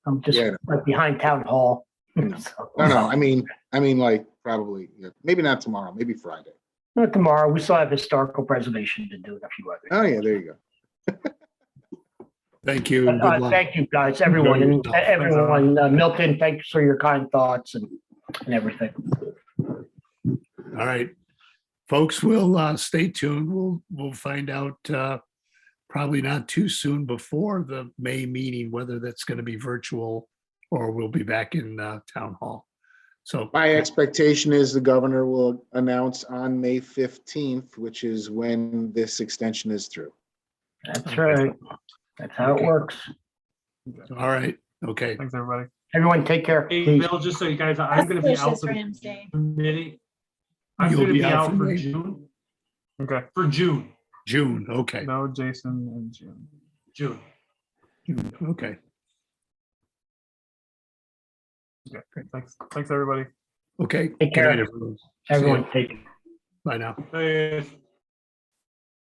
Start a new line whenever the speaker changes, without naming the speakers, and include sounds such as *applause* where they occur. I'm just
Yeah.
like behind town hall. *laughs*
Yeah.
So,
No, no, I mean, I mean, like, probably, yeah, maybe not tomorrow, maybe Friday.
Not uh, tomorrow. We still have historical preservation to do and a few others.
Oh, yeah, there you go.
Thank you.
But,
and good
uh,
luck.
Thank you, guys, everyone, and everyone. Uh, Milton, thanks for your kind thoughts and, and everything.
All right. Folks, we'll uh, stay tuned. We'll, we'll find out uh, probably not too soon before the May meeting, whether that's going to be virtual or we'll be back in uh, town hall. So
My expectation is the governor will announce on May fifteenth, which is when this extension is through.
That's right. That's how it works.
All right, okay.
Thanks, everybody.
Everyone, take care.
Hey,
please.
Bill, just so you guys, I'm gonna be
That's
out
Lucius
for
Ramsey.
the committee. I'm
You'll
gonna
be
be
out
out
for
for
May?
June. Okay. For June,
June, okay,
no, Jason and June. June.
June, okay.
Yeah, great. Thanks, thanks, everybody.
Okay.
Take
Good night,
care.
everyone.
Everyone, take care.
Bye now.
Hey.